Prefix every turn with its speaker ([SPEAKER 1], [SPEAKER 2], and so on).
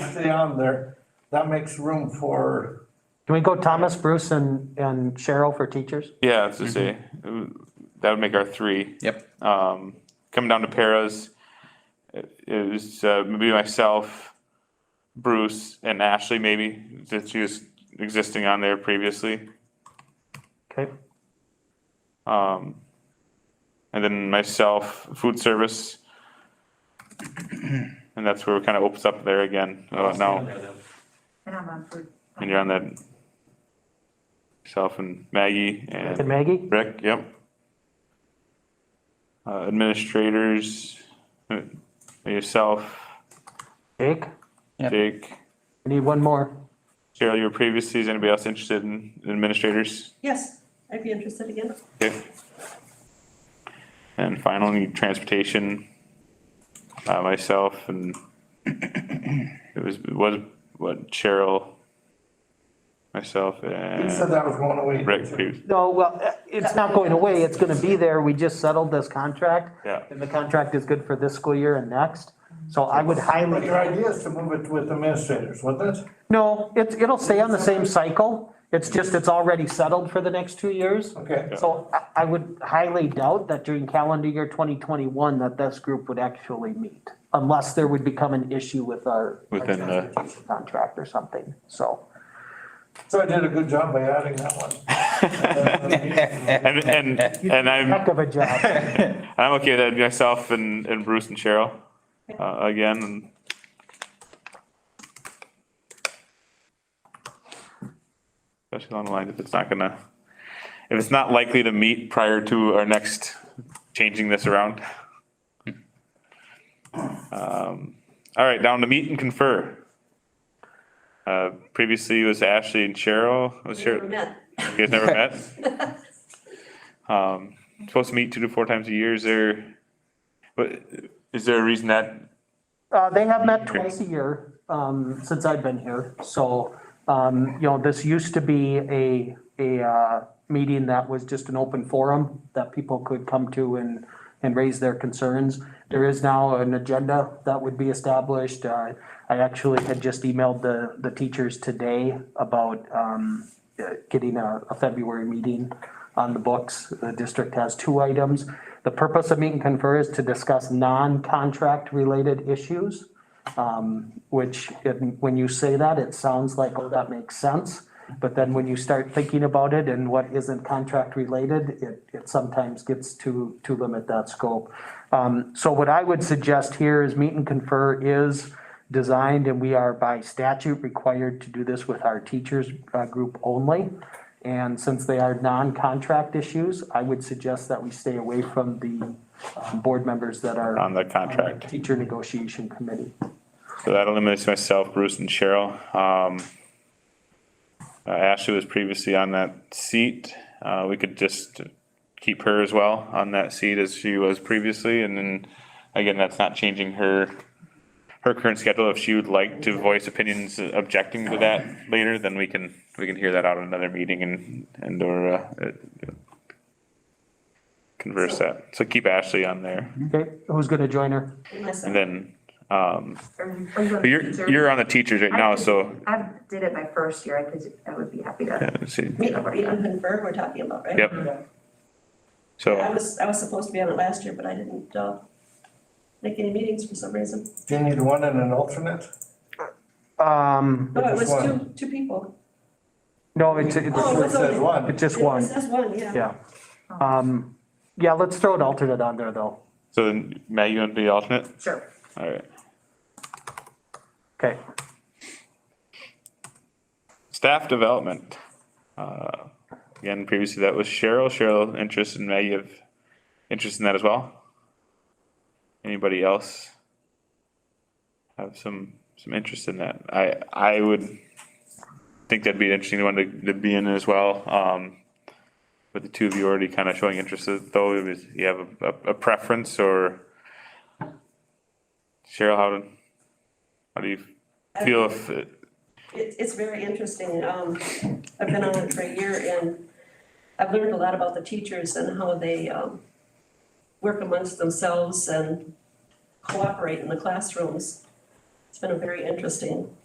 [SPEAKER 1] stay on there, that makes room for,
[SPEAKER 2] Can we go Thomas, Bruce, and, and Cheryl for teachers?
[SPEAKER 3] Yeah, that's to say, uh, that would make our three.
[SPEAKER 4] Yep.
[SPEAKER 3] Um, coming down to paras, it it was uh, maybe myself, Bruce, and Ashley maybe, since she was existing on there previously.
[SPEAKER 2] Okay,
[SPEAKER 3] Um, and then myself, food service. And that's where it kind of opens up there again, uh, now,
[SPEAKER 5] And I'm on food.
[SPEAKER 3] and you're on that. Self and Maggie and.
[SPEAKER 2] and Maggie?
[SPEAKER 3] Rick, yep. Uh, administrators, uh, yourself,
[SPEAKER 2] Jake?
[SPEAKER 4] Yep.
[SPEAKER 3] Jake,
[SPEAKER 2] We need one more.
[SPEAKER 3] Cheryl, you were previously, is anybody else interested in administrators?
[SPEAKER 6] Yes, I'd be interested again.
[SPEAKER 3] Okay. And finally, transportation, uh, myself and it was, was, what, Cheryl, myself
[SPEAKER 1] you said
[SPEAKER 3] and
[SPEAKER 1] that was going away.
[SPEAKER 3] Rick, previ-
[SPEAKER 2] No, well, eh, it's not going away, it's gonna be there, we just settled this contract.
[SPEAKER 3] Yeah.
[SPEAKER 2] And the contract is good for this school year and next, so I would
[SPEAKER 1] But
[SPEAKER 2] highly,
[SPEAKER 1] your idea is to move it with administrators, wasn't it?
[SPEAKER 2] no, it's, it'll stay on the same cycle. It's just, it's already settled for the next two years.
[SPEAKER 1] Okay,
[SPEAKER 2] So I- I would highly doubt that during calendar year 2021 that this group would actually meet, unless there would become an issue with our our
[SPEAKER 3] Within the-
[SPEAKER 2] transportation contract or something, so.
[SPEAKER 1] so I did a good job by adding that one.
[SPEAKER 3] and, and, and I'm.
[SPEAKER 2] Heck of a job.
[SPEAKER 3] I'm okay with that, myself and, and Bruce and Cheryl, uh, again, and. Especially along the lines, if it's not gonna, if it's not likely to meet prior to our next changing this around. Um, all right, down to meet and confer. Uh, previously it was Ashley and Cheryl, was
[SPEAKER 6] Never
[SPEAKER 3] Cheryl,
[SPEAKER 6] met.
[SPEAKER 3] you guys never met? Um, supposed to meet two to four times a year, is there, but is there a reason that,
[SPEAKER 2] Uh, They have met twice a year um, since I've been here, so, um, you know, this used to be a, a uh, meeting that was just an open forum that people could come to and, and raise their concerns. There is now an agenda that would be established. Uh, I actually had just emailed the, the teachers today about um, uh, getting a, a February meeting on the books. The district has two items. The purpose of meet and confer is to discuss non-contract related issues. Um, which, it- when you say that, it sounds like, oh, that makes sense. But then when you start thinking about it and what isn't contract related, it, it sometimes gets to, to limit that scope. Um, so what I would suggest here is meet and confer is designed and we are by statute required to do this with our teachers, uh, group only. And since they are non-contract issues, I would suggest that we stay away from the, um, board members that are.
[SPEAKER 3] On the contract.
[SPEAKER 2] Teacher negotiation committee.
[SPEAKER 3] so that eliminates myself, Bruce and Cheryl, um. uh, Ashley was previously on that seat, uh, we could just keep her as well on that seat as she was previously, and then. Again, that's not changing her, her current schedule, if she would like to voice opinions objecting to that later, then we can, we can hear that out at another meeting and, and or, uh. uh, Converse that, so keep Ashley on there.
[SPEAKER 2] Okay, who's gonna join her?
[SPEAKER 6] Unless-
[SPEAKER 3] And then, um,
[SPEAKER 5] Are you on
[SPEAKER 3] but you're,
[SPEAKER 5] teacher?
[SPEAKER 3] you're on the teachers right
[SPEAKER 5] I
[SPEAKER 3] now,
[SPEAKER 5] did-
[SPEAKER 3] so,
[SPEAKER 5] I did it my first year, I could, I would be happy to.
[SPEAKER 3] let's see,
[SPEAKER 6] Meet meet and confer we're talking about, right?
[SPEAKER 3] Yep.
[SPEAKER 6] I
[SPEAKER 3] so,
[SPEAKER 6] was, I was supposed to be on it last year, but I didn't, uh, make any meetings for some reason.
[SPEAKER 1] Do you need one and an alternate?
[SPEAKER 2] Um,
[SPEAKER 6] No, Oh, it was
[SPEAKER 1] Just
[SPEAKER 6] two, two people.
[SPEAKER 2] no, it's,
[SPEAKER 6] Oh,
[SPEAKER 1] It
[SPEAKER 2] it's,
[SPEAKER 6] was-
[SPEAKER 1] just says one.
[SPEAKER 2] it's just one,
[SPEAKER 6] It says one, yeah.
[SPEAKER 2] yeah. Um, yeah, let's throw an alternate on there though.
[SPEAKER 3] so then, Matt, you want to be the alternate?
[SPEAKER 5] Sure.
[SPEAKER 3] Alright,
[SPEAKER 2] Okay,
[SPEAKER 3] staff development. Uh, Again, previously that was Cheryl, Cheryl interest in Maggie have interest in that as well? Anybody else? Have some, some interest in that, I, I would think that'd be an interesting one to, to be in as well, um. With the two of you already kind of showing interest, uh, though, is, you have a, a- a preference or? Cheryl, how, do- how do you feel if, it-
[SPEAKER 6] It, it's very interesting. Um, I've been on it for a year and I've learned a lot about the teachers and how they, um, work amongst themselves and cooperate in the classrooms. It's been a very interesting